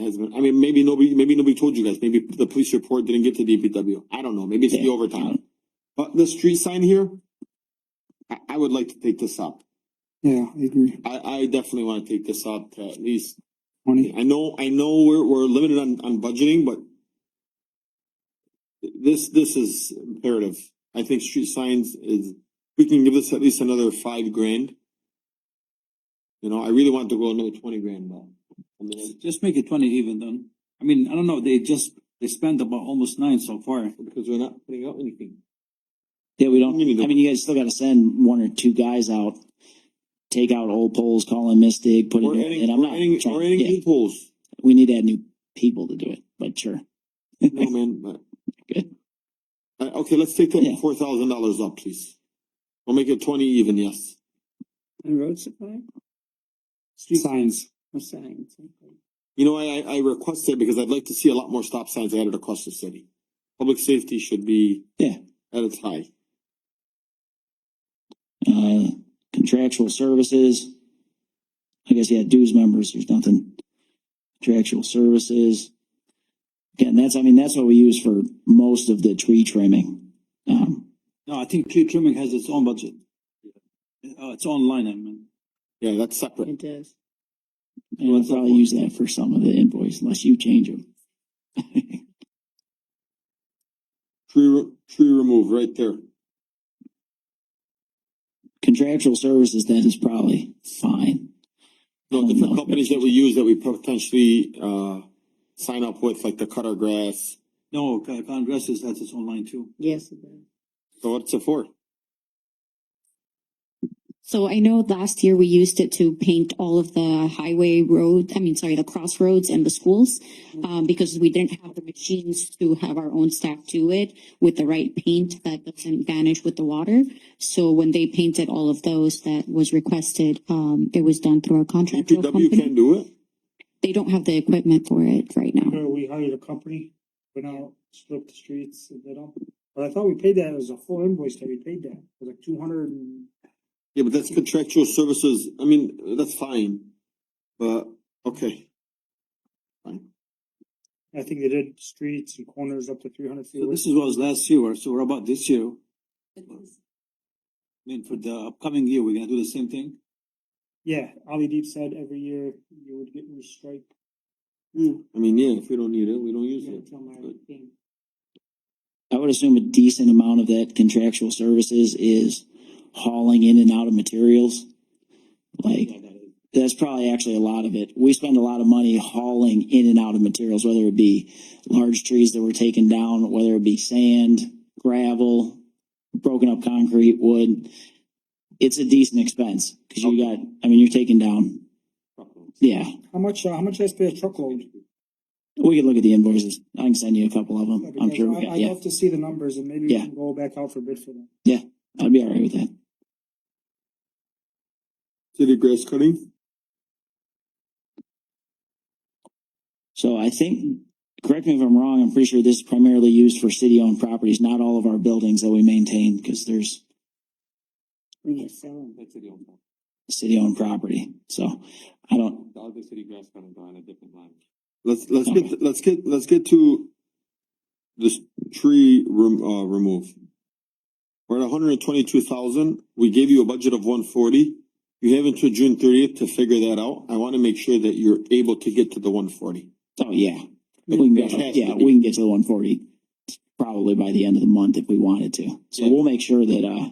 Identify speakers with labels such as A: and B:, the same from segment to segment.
A: has been, I mean, maybe nobody, maybe nobody told you guys, maybe the police report didn't get to DPW. I don't know, maybe it's the
B: Yeah.
A: overtime. But the street sign here, I, I would like to take this up.
C: Yeah, I agree.
A: I, I definitely wanna take this up to at least,
C: Twenty.
A: I know, I know we're, we're limited on, on budgeting, but this, this is imperative. I think street signs is, we can give this at least another five grand. You know, I really want to go another twenty grand though. I mean,
D: Just make it twenty even then. I mean, I don't know, they just, they spent about almost nine so far.
A: because we're not putting out anything.
B: Yeah, we
A: I mean, you
B: don't,
A: don't-
B: I mean, you guys still gotta send one or two guys out, take out old poles, call in Mystic, put it
A: We're
B: in, and
A: adding,
B: I'm
A: we're
B: not
A: adding,
B: trying,
A: we're adding
B: yeah,
A: equals.
B: we need to add new people to do it, but sure.
A: No, man, but.
B: Good.
A: Uh, okay, let's take that
B: Yeah.
A: four thousand dollars up, please. We'll make it twenty even, yes.
E: And road supply? Street
C: Signs.
E: signs. okay.
A: You know, I, I I requested because I'd like to see a lot more stop signs added across the city. Public safety should be.
B: Yeah.
A: At its high.
B: Uh, contractual services. I guess, yeah, dues members, there's nothing. Contractual services. Again, that's, I mean, that's what we use for most of the tree trimming. Um,
D: No, I think tree trimming has its own budget. Uh, it's online, I mean.
A: Yeah, that's separate.
E: It does.
B: and we'll probably use that for some of the invoice unless you change them.
A: Tree, re- tree remove right there.
B: Contractual services, that is probably fine.
A: No,
B: Oh,
A: different
B: no.
A: companies that we use that we potentially, uh, sign up with, like the cutter grass.
D: No, Con- Congress is, has its online too.
E: Yes, it does.
A: So what's it for?
F: So I know last year we used it to paint all of the highway road, I mean, sorry, the crossroads and the schools. Um, because we didn't have the machines to have our own staff do it with the right paint that doesn't vanish with the water. So when they painted all of those that was requested, um, it was done through our contractual
A: DPW
F: company.
A: can't do it?
F: They don't have the equipment for it right now.
C: Remember, we hired a company, went out, stripped the streets, and did all. But I thought we paid that, it was a full invoice that we paid that, it was like two hundred and.
A: Yeah, but that's contractual services, I mean, that's fine, but, okay. Fine.
C: I think they did streets and corners up to three hundred feet.
D: So this is what was last year, so we're about this year. I mean, for the upcoming year, we're gonna do the same thing.
C: Yeah, Ali Deep said every year you would get your strike.
A: I mean, yeah, if we don't need it, we don't use
C: Yeah,
A: it.
C: tell my
A: But
C: team.
B: I would assume a decent amount of that contractual services is hauling in and out of materials. Like, that's probably actually a lot of it. We spend a lot of money hauling in and out of materials, whether it be large trees that were taken down, whether it be sand, gravel, broken up concrete, wood. It's a decent expense because you got, I mean, you're taking down, yeah.
C: How much, uh, how much I pay a truckload?
B: We could look at the invoices. I can send you a couple of them. I'm
C: Because
B: sure we
C: I-
B: got,
C: I'd
B: yeah.
C: love to see the numbers and maybe we
B: Yeah.
C: can go back out for bid for that.
B: I'd be all right with that.
A: City grass cutting?
B: So I think, correct me if I'm wrong, I'm pretty sure this is primarily used for city-owned properties, not all of our buildings that we maintain, because there's
E: We get selling.
D: That's the old one.
B: city-owned property. So I don't,
D: The other city grass cutting on a different line.
A: Let's, let's get, let's get, let's get to this tree rem- uh, remove. We're at hundred and twenty-two thousand, we gave you a budget of one forty. You have until June thirtieth to figure that out. I wanna make sure that you're able to get to the one forty.
B: oh, yeah. We can go,
A: Fantastic.
B: yeah, we can get to the one forty probably by the end of the month if we wanted to. So
A: Yeah.
B: we'll make sure that, uh,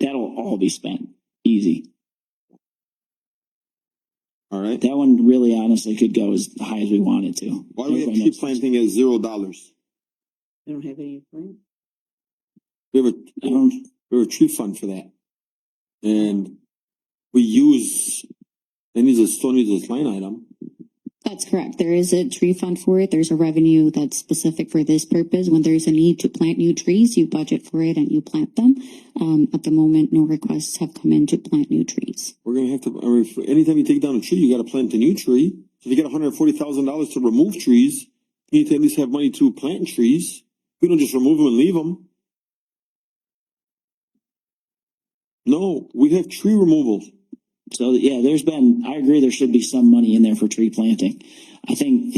B: that'll all be spent, easy.
A: Alright,
B: That one really honestly could go as high as we want it to.
A: why do we have tree planting at zero dollars?
E: We don't have any plan.
A: We have a,
B: I don't-
A: we have a tree fund for that. And we use, it needs a, still needs this line item.
F: That's correct. There is a tree fund for it. There's a revenue that's specific for this purpose. When there's a need to plant new trees, you budget for it and you plant them. Um, at the moment, no requests have come in to plant new trees.
A: We're gonna have to, I mean, for- anytime you take down a tree, you gotta plant a new tree. So if you get hundred and forty thousand dollars to remove trees, you need to at least have money to plant trees. We don't just remove them and leave them. No, we have tree removals.
B: So yeah, there's been, I agree, there should be some money in there for tree planting. I think